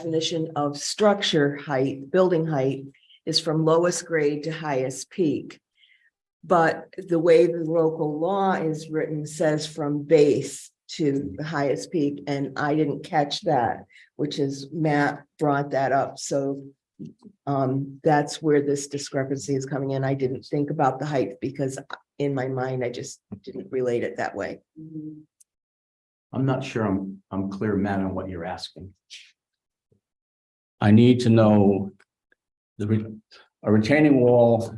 definition of structure height, building height is from lowest grade to highest peak. But the way the local law is written says from base to the highest peak, and I didn't catch that, which is Matt brought that up, so um, that's where this discrepancy is coming in. I didn't think about the height because in my mind, I just didn't relate it that way. I'm not sure I'm, I'm clear, Matt, on what you're asking. I need to know the, re- a retaining wall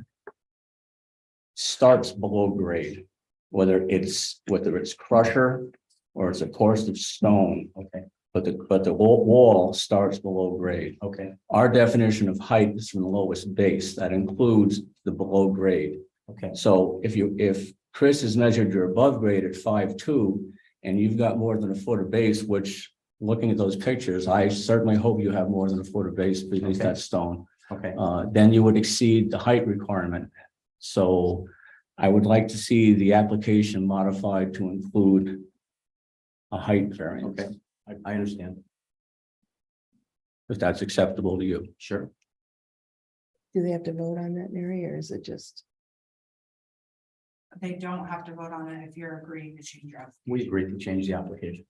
starts below grade, whether it's, whether it's crusher or it's a course of stone, Okay, but the, but the wall, wall starts below grade. okay, Our definition of height is from the lowest base. That includes the below grade. okay. So if you, if Chris has measured your above grade at five two and you've got more than a foot of base, which looking at those pictures, I certainly hope you have more than a foot of base beneath Okay. that stone. Okay, Uh, then you would exceed the height requirement. So I would like to see the application modified to include a height variance, okay. I, I understand. if that's acceptable to you. Sure. Do they have to vote on that, Mary, or is it just? They don't have to vote on it if you're agreeing to change your, We agreed to change the application.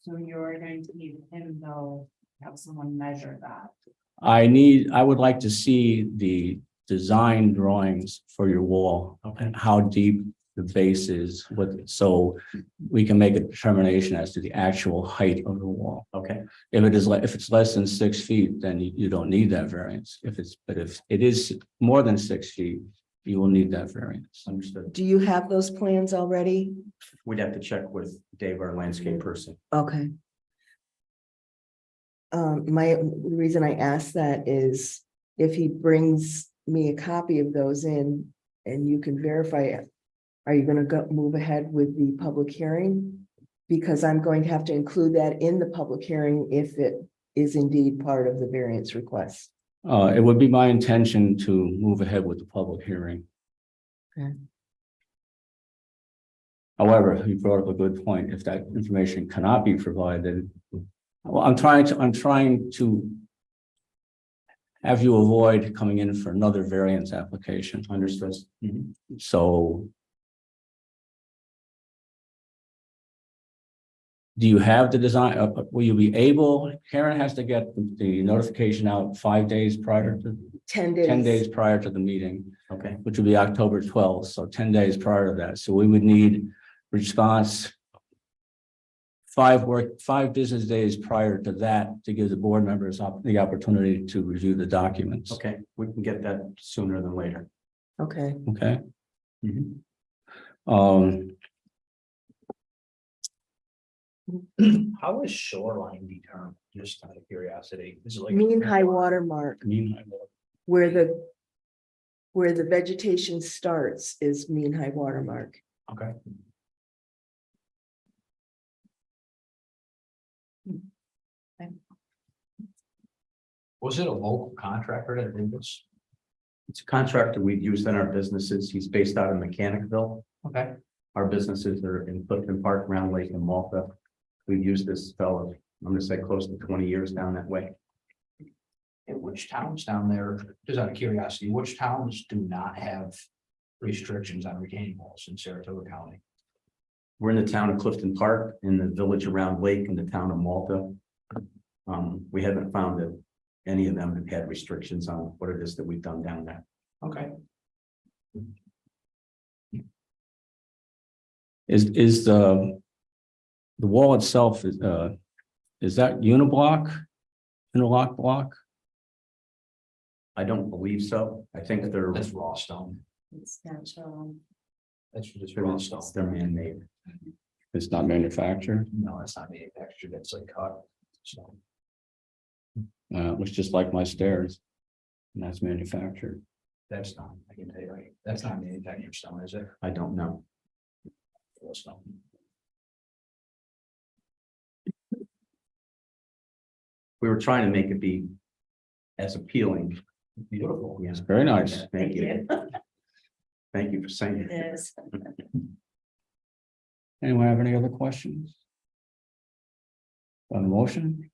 so you're going to need him though, have someone measure that. I need, I would like to see the design drawings for your wall Okay. and how deep the base is with, so we can make a determination as to the actual height of the wall. Okay, If it is, le- if it's less than six feet, then you, you don't need that variance. If it's, but if it is more than six feet, you will need that variance. understood. Do you have those plans already? We'd have to check with Dave, our landscape Mm-hmm. person. Okay. Um, my, the reason I ask that is if he brings me a copy of those in and you can verify it. Are you gonna go, move ahead with the public hearing? Because I'm going to have to include that in the public hearing if it is indeed part of the variance request. Uh, it would be my intention to move ahead with the public hearing. Okay. However, you brought up a good point. If that information cannot be provided, well, I'm trying to, I'm trying to have you avoid coming in for another variance application. Understood. Mhm. So do you have the design, uh, uh, will you be able, Karen has to get the notification out five days prior to, Ten days. ten days prior to the meeting, Okay, which would be October twelfth, so ten days prior to that. So we would need response five work, five business days prior to that to give the board members op- the opportunity to review the documents. okay. We can get that sooner than later. Okay, Okay? Mhm. Um, How is shoreline determined? Just out of curiosity, is it like? mean high water mark meanwhile, where the. Where the vegetation starts is mean high water mark. Okay. Was it a local contractor that did this? It's a contractor we've used in our businesses. He's based out of Mechanicville. Okay. Our businesses are in Clifton Park, Round Lake and Malta. We've used this fellow, I'm gonna say close to twenty years down that way. And which towns down there, just out of curiosity, which towns do not have restrictions on retaining walls in Saratoga County? We're in the town of Clifton Park, in the village around Lake, in the town of Malta. Um, we haven't found that any of them have had restrictions on what it is that we've done down there. Okay. Is, is the, the wall itself is, uh, is that uniblock? Interlock block? I don't believe so. I think they're, That's raw stone. It's natural. That's just raw stone. they're man-made. It's not manufactured, No, that's not manufactured. That's like cut. So, uh, it looks just like my stairs. And that's manufactured. that's not, I can tell you, right, that's not manufactured stone, is it? I don't know. Raw stone. We were trying to make it be as appealing. Beautiful. Yeah. It's very nice. Thank you. Thank you for saying it. It is. Anyone have any other questions? On the motion?